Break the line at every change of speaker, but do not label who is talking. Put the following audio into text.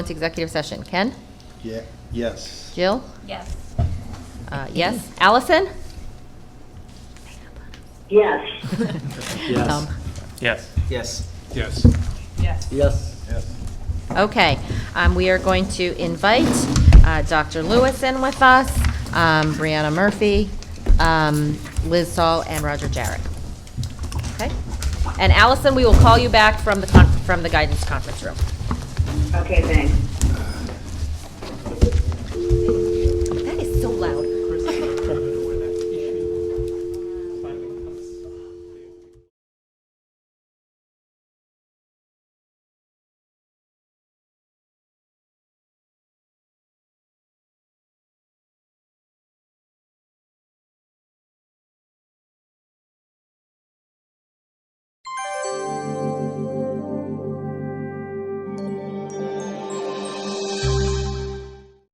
to executive session. Ken?
Yeah, yes.
Jill?
Yes.
Uh, Yes. Allison?
Yes.
Um,
Yes.
Yes.
Yes.
Yes.
Yes.
Okay, um, we are going to invite uh, Dr. Lewis in with us, um, Brianna Murphy, um, Liz Saul, and Roger Jarrett. Okay? And Allison, we will call you back from the, con- from the guidance conference room.
Okay, thanks.